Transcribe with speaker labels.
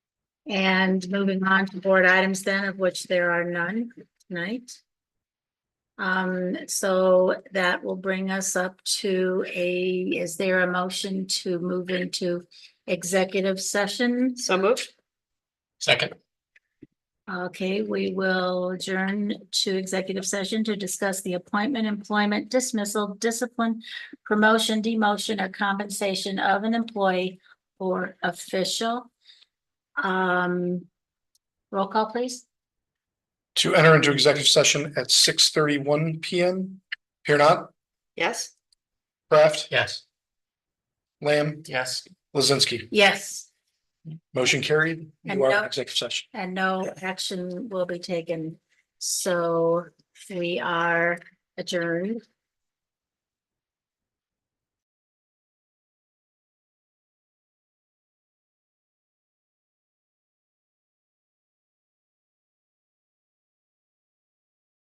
Speaker 1: And moving on to board items then, of which there are none tonight. Um, so that will bring us up to a, is there a motion to move into executive session?
Speaker 2: So moved.
Speaker 3: Second.
Speaker 1: Okay, we will adjourn to executive session to discuss the appointment, employment dismissal, discipline, promotion, demotion, or compensation of an employee or official. Um, roll call, please.
Speaker 3: To enter into executive session at six thirty-one PM. Here not,
Speaker 2: Yes?
Speaker 3: Kraft,
Speaker 4: Yes.
Speaker 3: Lamb,
Speaker 4: Yes.
Speaker 3: Lizinski.
Speaker 1: Yes,
Speaker 3: Motion carried.
Speaker 1: And
Speaker 3: You are
Speaker 1: no-
Speaker 3: in executive session.
Speaker 1: and no action will be taken. So we are adjourned